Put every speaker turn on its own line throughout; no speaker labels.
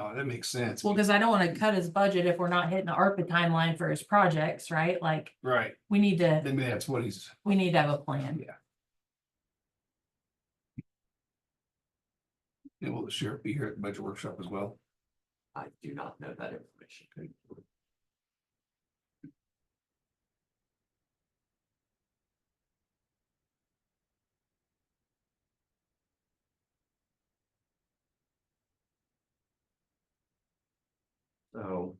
Oh, that makes sense.
Well, because I don't wanna cut his budget if we're not hitting the ARPA timeline for his projects, right? Like,
Right,
we need to,
then that's what he's,
we need to have a plan.
and will the sheriff be here at the budget workshop as well?
I do not know that information. So.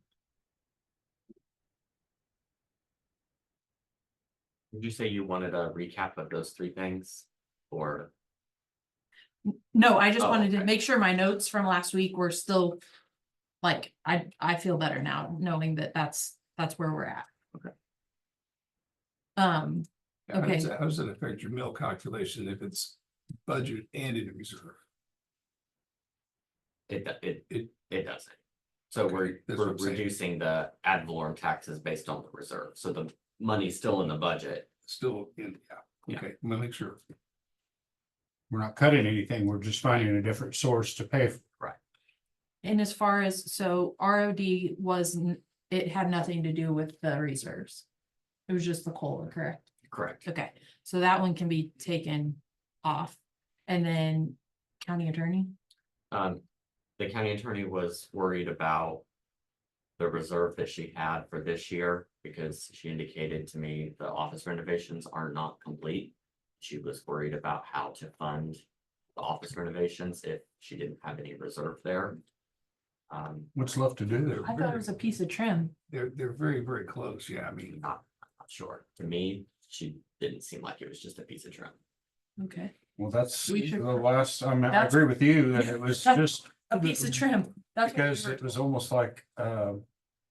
Did you say you wanted a recap of those three things? Or,
No, I just
Oh,
wanted to
okay.
make sure my notes from last week were still, like, I, I feel better now, knowing that that's, that's where we're at.
Okay.
Um,
How does
Okay.
that- How does that affect your mill calculation if it's budget and in reserve?
it, do- it,
It-
it doesn't. So
Okay,
we're,
that's what
we're
I'm saying.
reducing the ad valorem taxes based on the reserve, so the money's still in the budget.
Still in, yeah,
Yeah.
okay, I'm gonna make sure.
We're not cutting anything, we're just finding a different source to pay. for.
and as far as, so ROD was, n- it had nothing to do with the reserves. It was just the COLA, correct?
Correct.
Okay, so that one can be taken off. And then county attorney,
Um, the county attorney was worried about. The reserve that she had for this year, because she indicated to me the office renovations are not complete. She was worried about how to fund the office renovations if she didn't have any reserve there. Um,
What's left to do there?
I thought it was a piece of trim.
They're, they're very, very close, yeah, I mean,
not sure, to me, she didn't seem like it was just a piece of trim.
Okay.
Well, that's
We should-
the last, I mean, I
That's-
agree with you that it was just
A piece of trim. That's what we
because
were
it was
told.
almost like, uh,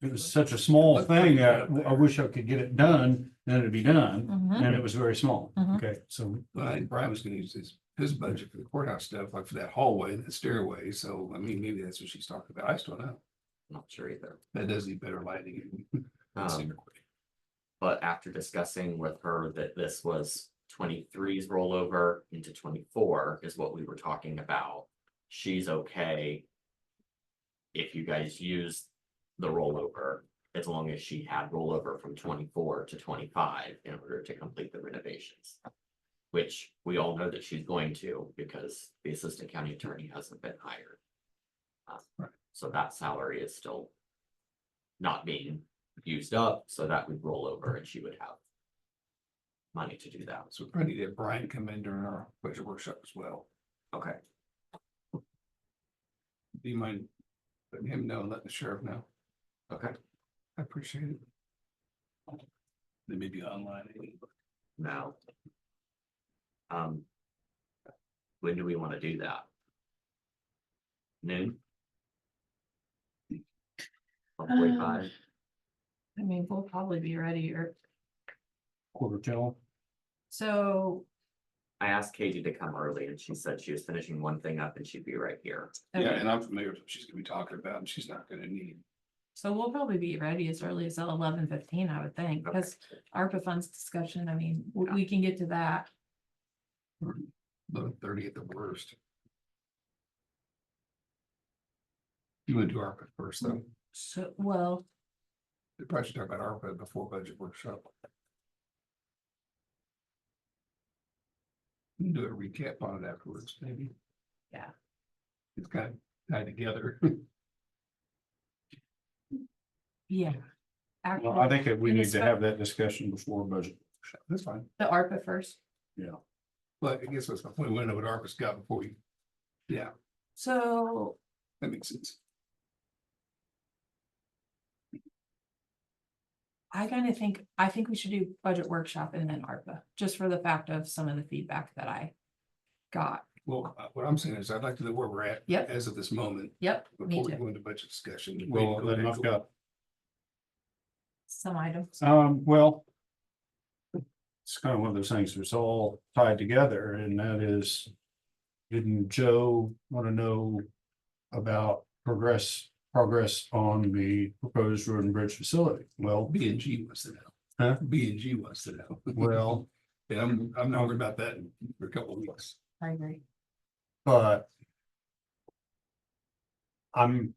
it was such a small thing. uh, I wish I could get it done, then it'd be done.
Mhm.
And it was very small.
Mhm.
Okay, so
well, and Brian was gonna use his, his budget for the courthouse stuff, like for that hallway and the stairway, so, I mean, maybe that's what she's talking about, I just don't know.
Not sure either.
That does need better lighting.
Um, but after discussing with her that this was 23's rollover into twenty-four is what we were talking about. She's okay. If you guys use the rollover, as long as she had rollover from twenty-four to twenty-five in order to complete the renovations. Which we all know that she's going to because the assistant county attorney hasn't been hired. Uh,
Right.
So that salary is still not being used up, so that would roll over and she would have money to do that.
So we probably need to have Brian come in during our budget workshop as well.
Okay,
Do you mind letting him know, and letting the sheriff know?
okay.
I appreciate it. They may be online.
Now. Um. When do we want to do that? Noon? One forty-five,
I mean, we'll probably be ready or,
quarter till.
so,
I asked Katie to come early and she said she was finishing one thing up and she'd be right here.
Yeah,
okay,
and I'm familiar with what she's gonna be talking about, and she's not gonna need.
so we'll probably be ready as early as eleven fifteen, I would think,
Okay.
because ARPA funds discussion, I mean, we,
Yeah.
we can get to that.
Eleven thirty at the worst. You would do ARPA first, though.
So, well,
They probably should talk about ARPA before budget workshop. We can Do a recap on it afterwards, maybe.
Yeah.
It's kind of tied together.
yeah.
Well, I
Actually,
think that we
And
need
it's
to
not-
have that discussion before budget.
That's fine.
the ARPA first.
But I guess that's my point. We know what ARPA's got before we,
So
that makes sense.
I kind of think, I think we should do budget workshop and then ARPA, just for the fact of some of the feedback that I got.
Well, uh, what I'm saying is I'd like to know where we're at.
Yep.
As of this moment,
Yep, me
before we
too.
go into budget discussion. We
Well,
go
then
to
I've got,
Some items.
um, well. It's kind of one of those things that's all tied together and that is. Didn't Joe want to know about progress, progress on the proposed road and bridge facility? Well,
B and G wants to know.
Huh?
B and G wants to know.
well.
Yeah, I'm, I'm not worried about that in a couple of weeks.
I agree.
But. I'm